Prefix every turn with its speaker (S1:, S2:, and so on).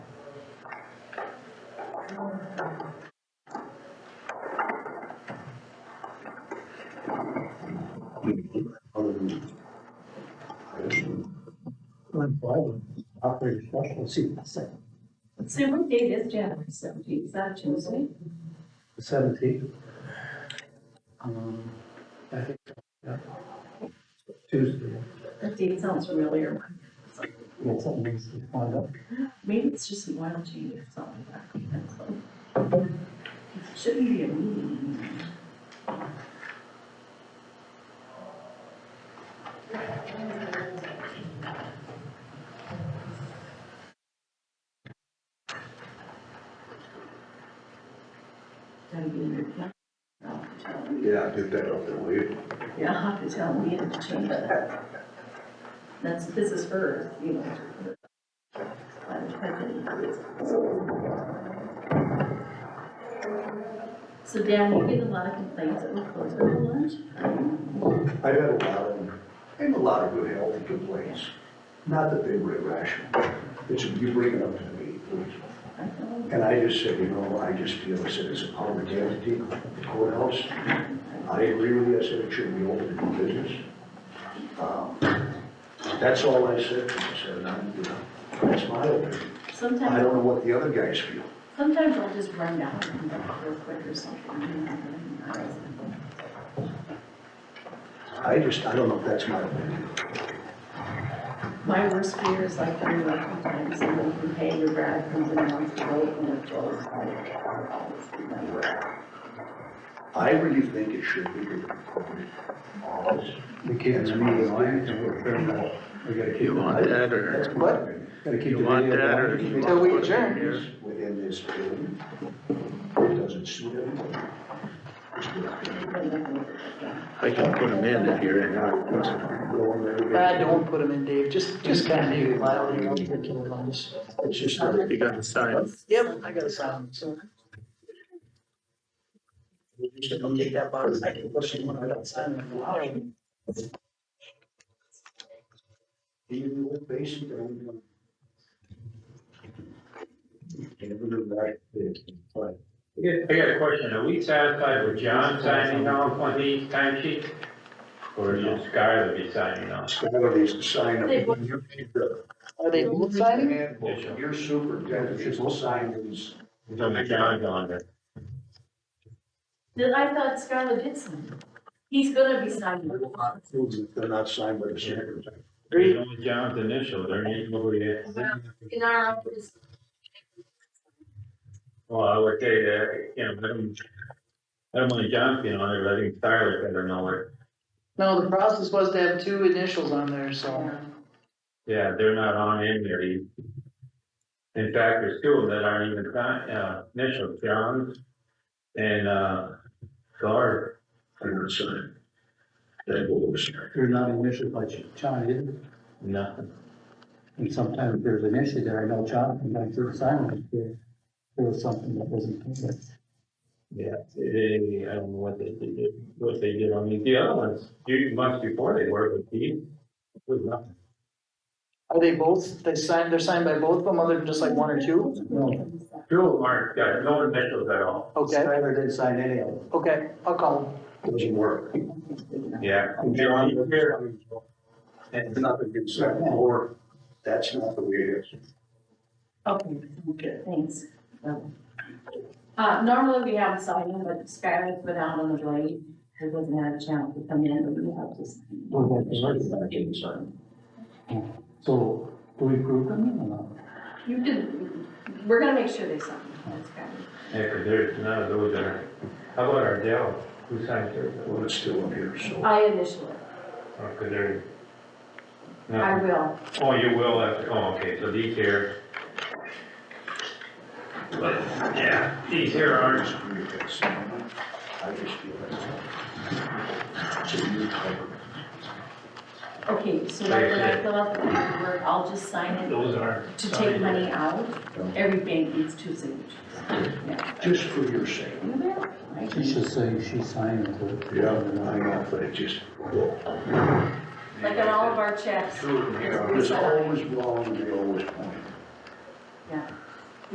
S1: Operator special seat,
S2: So what date is January seventeenth? Is that Tuesday?
S1: seventeen. Um, I think, yeah. Tuesday.
S2: That date sounds familiar.
S1: It's amazing, find out.
S2: Maybe it's just an oil change or something like that. It Shouldn't be a meeting. Gotta be in your plan. I'll have to tell them.
S3: Yeah, get that off the way.
S2: Yeah, I'll have to tell me to change that. That's, this is her, you know. I'm trying to- So Dan, you get a lot of complaints that we close early lunch?
S3: I've had a lot of, I have a lot of good healthy complaints. Not that they were irrational, it's, you bring it up to me.
S2: I don't know.
S3: And I just said, you know, I just feel as if it's a public entity, the courthouse. I agree with you, I said it shouldn't be open to do business. Um, That's all I said, I said, and I'm, you know, that's my opinion. I
S2: Sometimes,
S3: don't know what the other guys feel.
S2: sometimes I'll just run down and come back real quick or something. you know, and I was-
S3: I just, I don't know if that's my opinion.
S2: My worst fear is like when you work sometimes and you can pay your rent and then once you go and it's all.
S3: I really think it should be the corporate office.
S1: We can't, I mean, we're fair enough. We gotta keep.
S4: You want that or
S3: What?
S1: Gotta keep.
S4: you
S1: the
S4: want
S1: video
S4: that or
S1: going.
S4: you want?
S3: Until we
S4: to put it in
S3: adjourn.
S4: here?
S3: Within this building, it doesn't suit everyone.
S4: I can put them in if you're in.
S5: Ah, don't put them in, Dave, just, just kind of make it loud, you know, for kill lines.
S3: It's just, that
S4: You got the sign.
S5: Yep, I got a sound, so. You should don't take that box, I can push it when I don't sign it. Wow.
S3: even with basic, I don't know. Never knew that. But
S6: I got I got a question, are we satisfied with John signing off on these timesheets? Or should Skylar be signing off?
S3: Skylar needs to sign
S2: They
S3: up.
S2: would-
S3: You're the
S5: Are they both signing?
S3: handbook, You're superintendent, you should sign these.
S6: No, John's on there.
S2: Then I thought Scarlett did something. He's gonna be signing.
S3: If They're not signed by the secretary.
S6: There's only John's initial, there ain't nobody else.
S2: In our office,
S6: Well, I would say that, you know, let him, let him, let John be on there, let him Skylar, I don't know where.
S5: No, the process was to have two initials on there, so.
S6: Yeah, they're not on in there. He- In fact, there's two of them that aren't even signed, uh, initial, John's and, uh, Skylar.
S3: They're not signed. That will be signed.
S1: They're not initiated by John, is it?
S6: Nothing.
S1: And sometimes there's an issue there. I know John, sometimes there's silence there. There was something that wasn't. covered.
S6: Yeah, they, I don't know what they did, what they did on these, the other ones, few months before they were with these, was nothing.
S5: Are they both, they signed, they're signed by both of them, other than just like one or two?
S1: No,
S6: Two of them aren't, got no initials at all.
S5: Okay,
S1: Skylar didn't sign any of them.
S5: okay, I'll call them.
S3: Doesn't work.
S6: Yeah.
S3: I'm John. It's nothing against that, or that's not the way it is.
S2: Okay, good, thanks. Uh, normally we have a signing, but Skylar put out on the blade, who doesn't have a chance to come in, but we have to. sign.
S1: Well, that's already So do we approve them or not?
S2: You can, we're gonna make sure they sign, that's Skylar.
S6: Yeah, 'cause there's none of those that are, how about Ardell, who signed hers?
S3: Well, it's still up here, so.
S2: I initial it,
S6: Oh, 'cause they're-
S2: I
S6: No,
S2: will.
S6: oh, you will have, to- oh, okay, so these here. But, yeah, these here aren't,
S3: I just feel that. So you cover.
S2: Okay, so right when I fill out the paperwork, I'll just sign it
S6: those aren't.
S2: to take
S6: signed.
S2: money out. Every bank needs two signatures. Yeah.
S3: Just for your sake.
S2: You will, right?
S1: She should say she signed it.
S3: I know, but it just.
S2: Like on all of our checks.
S3: It's always wrong, and they always point.
S2: Yeah.